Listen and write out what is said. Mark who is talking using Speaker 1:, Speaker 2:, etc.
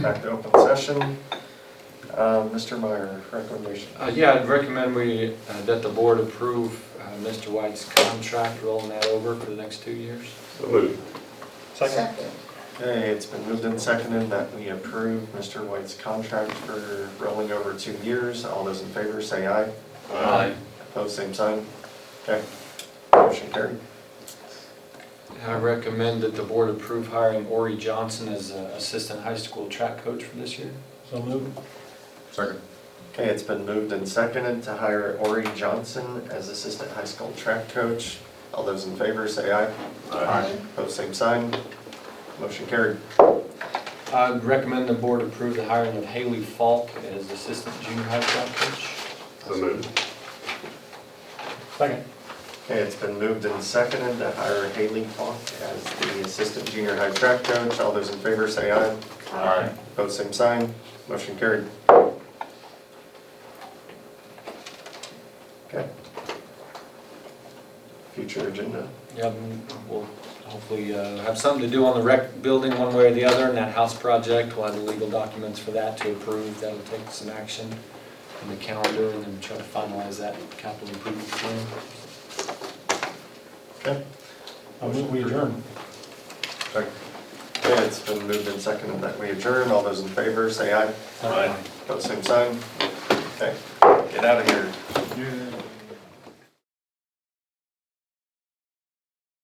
Speaker 1: Back to open session. Uh, Mr. Meyer, recommendation.
Speaker 2: Uh, Yeah, I'd recommend we, uh, that the board approve uh, Mr. White's contract, rolling that over for the next two years.
Speaker 3: So moved.
Speaker 1: Okay, it's been moved and seconded that we approve Mr. White's contract for rolling over two years. All those in favor say aye. Opposed, same sign. Okay, motion carried.
Speaker 2: And I recommend that the board approve hiring Ori Johnson as uh, assistant high school track coach for this year.
Speaker 4: So moved.
Speaker 3: Second.
Speaker 1: Okay, it's been moved and seconded to hire Ori Johnson as assistant high school track coach. All those in favor say aye. Opposed, same sign. Motion carried.
Speaker 2: I'd recommend the board approve the hiring of Haley Falk as assistant junior high track coach.
Speaker 3: So moved.
Speaker 4: Second.
Speaker 1: Okay, it's been moved and seconded to hire Haley Falk as the assistant junior high track coach. All those in favor say aye.
Speaker 3: Aye.
Speaker 1: Opposed, same sign. Motion carried. Okay. Future agenda.
Speaker 2: Yeah, mm, we'll hopefully uh, have something to do on the rec building one way or the other, and that house project, we'll have the legal documents for that to approve, that'll take some action in the calendar, and then try to finalize that capital improvement plan.
Speaker 1: Okay.
Speaker 4: I move we adjourn.
Speaker 1: Okay, it's been moved and seconded that we adjourn. All those in favor say aye. Opposed, same sign. Okay, get out of here.